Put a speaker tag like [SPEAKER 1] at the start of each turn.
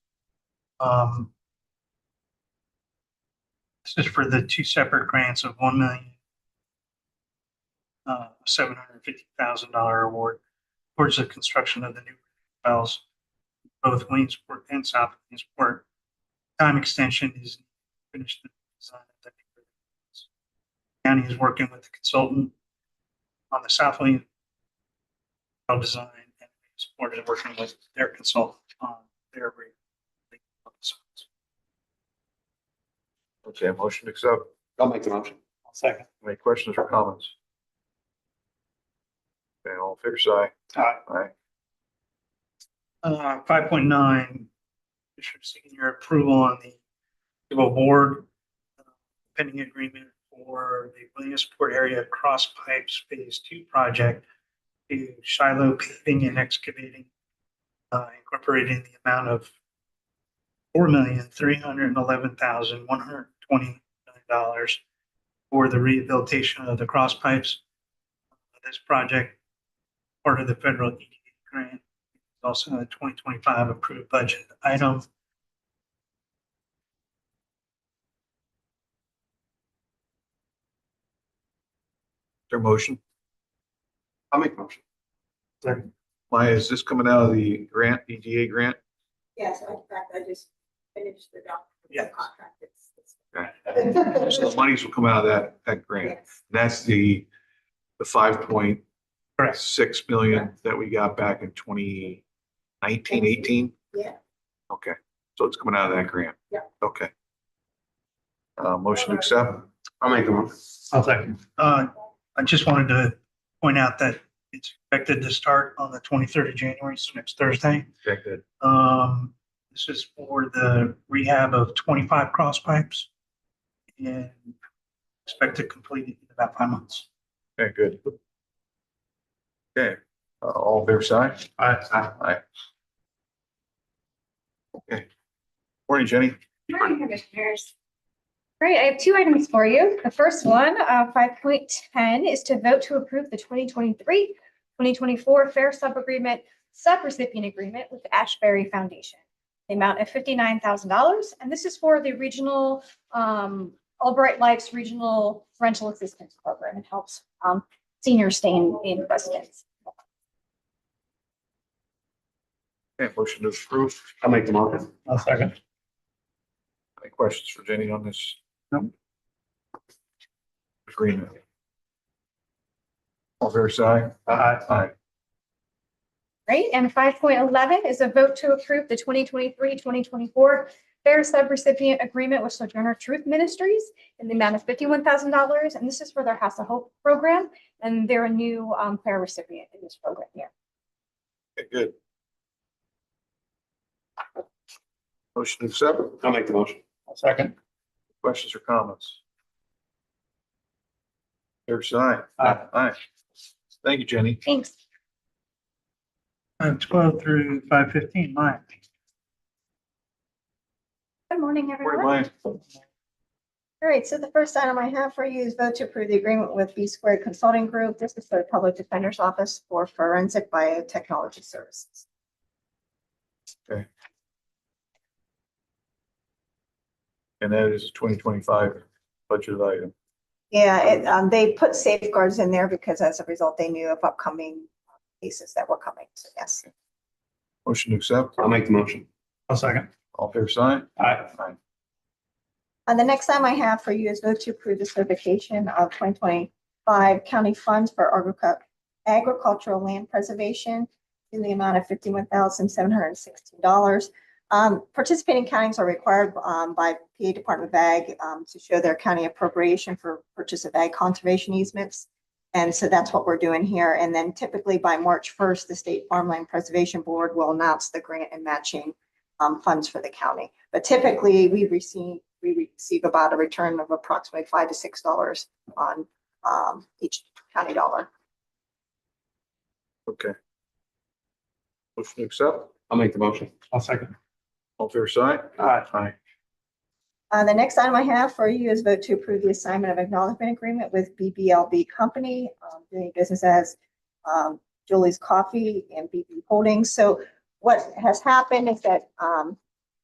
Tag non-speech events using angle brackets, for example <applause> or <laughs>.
[SPEAKER 1] Um, This is for the two separate grants of one million uh, seven hundred fifty thousand dollar award towards the construction of the new wells, both Williamsport and South Williamsport. Time extension is finished. the design of the new wells. County is working with the consultant on the South William well design and Williamsport is working with their consultant on their rate.
[SPEAKER 2] Okay, a motion to accept.
[SPEAKER 3] I'll make the motion.
[SPEAKER 1] Second.
[SPEAKER 2] Any questions or comments? Okay, all fair side.
[SPEAKER 1] Aye.
[SPEAKER 2] Aye.
[SPEAKER 1] Uh, five point nine, Commissioner seeking your approval on the civil board uh, pending agreement for the Williamsport area cross pipes phase two project to Shiloh paving and excavating, uh, incorporating the amount of four million, three hundred and eleven thousand, one hundred and twenty dollars for the rehabilitation of the cross pipes. This project, part of the federal EDA grant also a twenty twenty-five approved budget item.
[SPEAKER 2] Their motion.
[SPEAKER 3] I'll make the motion.
[SPEAKER 2] Maya, is this coming out of the grant, EDA grant?
[SPEAKER 4] Yes, in fact, I just finished the doc,
[SPEAKER 1] Yeah.
[SPEAKER 4] the contract. It's- it's-
[SPEAKER 2] So <laughs> the monies will come out of that, that grant.
[SPEAKER 4] Yes,
[SPEAKER 2] That's the, the five point
[SPEAKER 1] Correct.
[SPEAKER 2] six million that we got back in twenty nineteen, eighteen?
[SPEAKER 4] yeah.
[SPEAKER 2] Okay, so it's coming out of that grant?
[SPEAKER 4] Yeah.
[SPEAKER 2] Okay. Uh, motion to accept?
[SPEAKER 3] I'll make the motion.
[SPEAKER 1] I'll second. Uh, I just wanted to point out that it's expected to start on the twenty-third of January, so next Thursday.
[SPEAKER 2] Okay, good.
[SPEAKER 1] Um, this is for the rehab of twenty-five cross pipes. And expect to complete it in about five months.
[SPEAKER 2] Okay, good. Okay, uh, all fair side? Aye. Aye. Okay. Morning, Jenny.
[SPEAKER 5] Morning, Commissioners. Great, I have two items for you. The first one, uh, five point ten, is to vote to approve the 2023-2024 Fair Sub Agreement, Subrecipient Agreement with the Ashbury Foundation. The amount of fifty-nine thousand dollars, and this is for the regional, um, Albright Life's Regional Rental Assistance Program. It helps, um, seniors stay in, in residence.
[SPEAKER 2] Okay, motion to approve.
[SPEAKER 3] I'll make the motion.
[SPEAKER 1] I'll second.
[SPEAKER 2] Any questions for Jenny on this?
[SPEAKER 1] No.
[SPEAKER 2] Agreement. All fair side?
[SPEAKER 3] Aye.
[SPEAKER 2] Aye.
[SPEAKER 5] Right, and five point eleven is a vote to approve the 2023-2024 Fair Subrecipient Agreement with Sojourner Truth Ministries in the amount of fifty-one thousand dollars, and this is for their House of Hope program, and they're a new um fair recipient in this program here.
[SPEAKER 2] Okay, good. Motion to accept.
[SPEAKER 3] I'll make the motion.
[SPEAKER 1] Second.
[SPEAKER 2] Questions or comments? Fair side?
[SPEAKER 1] Aye.
[SPEAKER 2] Aye. Thank you, Jenny.
[SPEAKER 5] Thanks.
[SPEAKER 1] Uh, twelve through five fifteen, Mike.
[SPEAKER 5] Good morning, everyone.
[SPEAKER 2] Morning, Maya.
[SPEAKER 5] All right, so the first item I have for you is vote to approve the agreement with B Squared Consulting Group. This is the Public Defender's Office for Forensic Biotechnology Services.
[SPEAKER 2] And that is twenty twenty-five budget item.
[SPEAKER 6] Yeah, it, um, they put safeguards in there because as a result, they knew of upcoming cases that were coming. So yes,
[SPEAKER 2] Motion to accept,
[SPEAKER 3] I'll make the motion.
[SPEAKER 1] I'll second.
[SPEAKER 2] all fair side?
[SPEAKER 1] Aye.
[SPEAKER 2] Aye.
[SPEAKER 6] Uh, the next item I have for you is vote to approve the certification of twenty twenty-five county funds for agricu- agricultural land preservation in the amount of fifty-one thousand seven hundred and sixteen dollars. Um, participating counties are required, um, by PA Department of Ag, um, to show their county appropriation for purchase of ag conservation easements. And so that's what we're doing here. And then typically by March first, the State Farmland Preservation Board will announce the grant and matching, um, funds for the county. But typically, we receive, we receive about a return of approximately five to six dollars on, um, each county dollar.
[SPEAKER 2] Okay. Motion to accept,
[SPEAKER 3] I'll make the motion.
[SPEAKER 1] I'll second.
[SPEAKER 2] all fair side?
[SPEAKER 1] Aye.
[SPEAKER 2] Aye.
[SPEAKER 6] Uh, the next item I have for you is vote to approve the assignment of acknowledgement agreement with BBLB Company, um, doing business as, um, Julie's Coffee and BB Holdings. So what has um, happened is that, um,